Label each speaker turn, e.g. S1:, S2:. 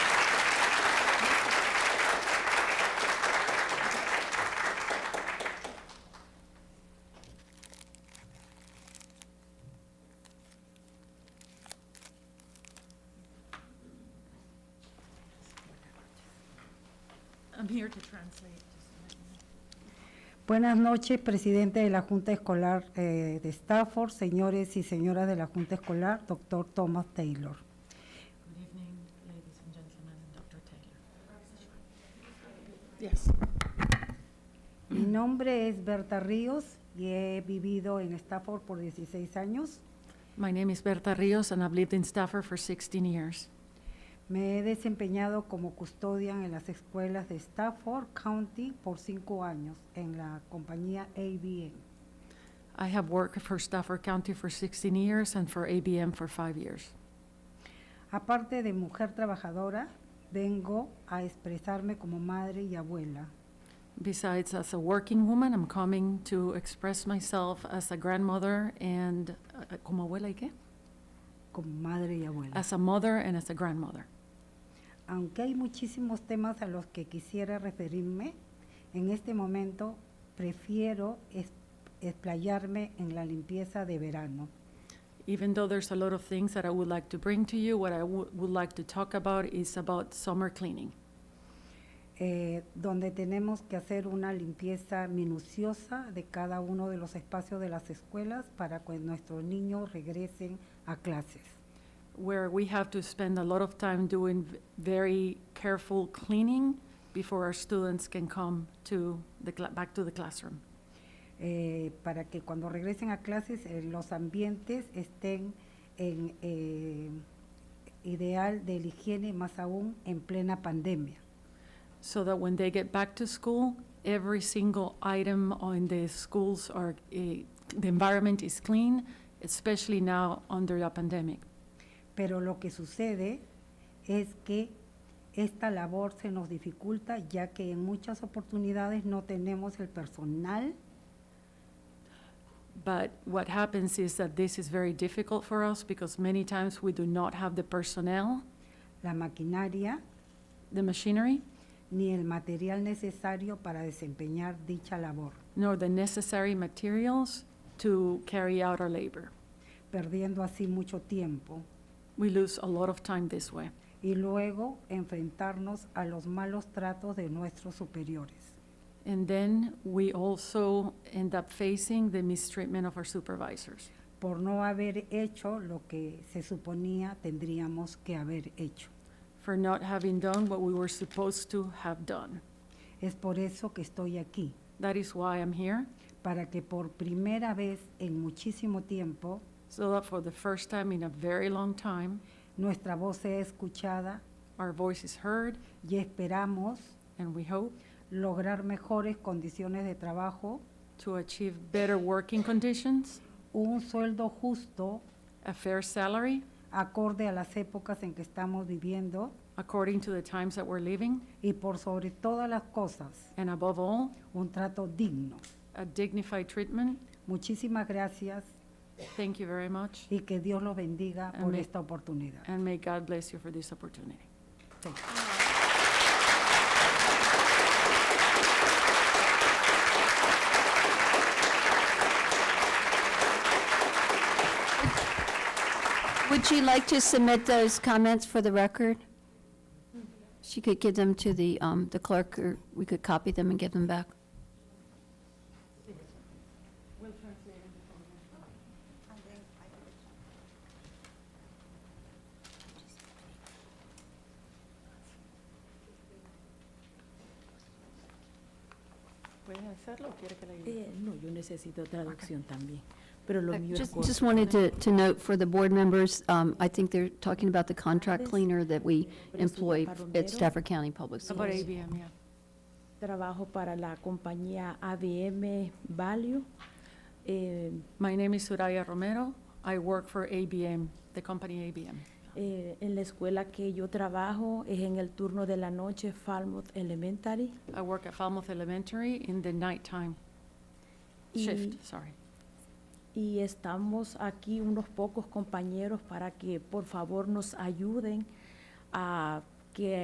S1: I'm here to translate. just a minute.
S2: Buenas noches, presidente de la Junta Escolar eh, de Stafford, señores y señoras de la Junta Escolar, doctor Thomas Taylor.
S1: Good evening, ladies and gentlemen, and Dr. Taylor. Yes.
S2: Mi nombre es Berta Ríos y he vivido en Stafford por 16 años.
S1: My name is Berta Rios, and I've lived in Stafford for 16 years.
S2: Me he desempeñado como custodia en las escuelas de Stafford County por 5 años en la compañía ABN.
S1: I have worked for Stafford County for 16 years and for ABM for five years.
S2: Aparte de mujer trabajadora, vengo a expresarme como madre y abuela.
S1: Besides, as a working woman, I'm coming to express myself as a grandmother and, uh, como abuela y qué?
S2: Como madre y abuela.
S1: As a mother and as a grandmother.
S2: Aunque hay muchísimos temas a los que quisiera referirme, en este momento prefiero es- explayarme en la limpieza de verano.
S1: Even though there's a lot of things that I would like to bring to you, what I wou- would like to talk about is about summer cleaning,
S2: eh, donde tenemos que hacer una limpieza minuciosa de cada uno de los espacios de las escuelas para que nuestros niños regresen a clases.
S1: where we have to spend a lot of time doing v- very careful cleaning before our students can come to the, cla- back to the classroom,
S2: eh, para que cuando regresen a clases eh, los ambientes estén en eh, ideal de la higiene, más aún en plena pandemia.
S1: so that when they get back to school, every single item on the schools are, eh, the environment is clean, especially now under the pandemic.
S2: Pero lo que sucede es que esta labor se nos dificulta ya que en muchas oportunidades no tenemos el personal
S1: But what happens is that this is very difficult for us because many times we do not have the personnel,
S2: la maquinaria
S1: the machinery,
S2: ni el material necesario para desempeñar dicha labor,
S1: nor the necessary materials to carry out our labor.
S2: perdiendo así mucho tiempo
S1: We lose a lot of time this way.
S2: y luego enfrentarnos a los malos tratos de nuestros superiores.
S1: And then we also end up facing the mistreatment of our supervisors
S2: por no haber hecho lo que se suponía tendríamos que haber hecho.
S1: for not having done what we were supposed to have done.
S2: Es por eso que estoy aquí,
S1: That is why I'm here,
S2: para que por primera vez en muchísimo tiempo
S1: so that for the first time in a very long time,
S2: nuestra voz sea escuchada
S1: our voice is heard
S2: y esperamos
S1: and we hope
S2: lograr mejores condiciones de trabajo,
S1: to achieve better working conditions,
S2: un sueldo justo
S1: a fair salary
S2: acorde a las épocas en que estamos viviendo
S1: according to the times that we're living,
S2: y por sobre todas las cosas,
S1: and above all,
S2: un trato digno.
S1: a dignified treatment.
S2: Muchísimas gracias
S1: Thank you very much,
S2: y que Dios los bendiga por
S1: Amén.
S2: esta oportunidad.
S1: and may God bless you for this opportunity.
S2: Thank you.
S3: Would she like to submit those comments for the record? She could give them to the um, the clerk, or we could copy them and give them back.
S4: ¿Puedes hacerlo o quiere que la ayude?
S5: Eh, no, yo necesito traducción también, pero
S1: Eh,
S5: lo
S3: I
S5: mío es
S3: Just
S5: corto.
S3: just wanted to to note for the board members, um, I think they're talking about the contract cleaner that we employ at Stafford County Public
S1: How about
S3: Schools.
S1: ABM, yeah?
S5: Trabajo para la compañía ABM Value. Eh,
S1: My name is Soraya Romero. I work for ABM, the company ABM.
S5: eh, en la escuela que yo trabajo es en el turno de la noche, Falmouth Elementary.
S1: I work at Falmouth Elementary in the nighttime
S5: Y,
S1: shift, sorry.
S5: y estamos aquí unos pocos compañeros para que por favor nos ayuden a que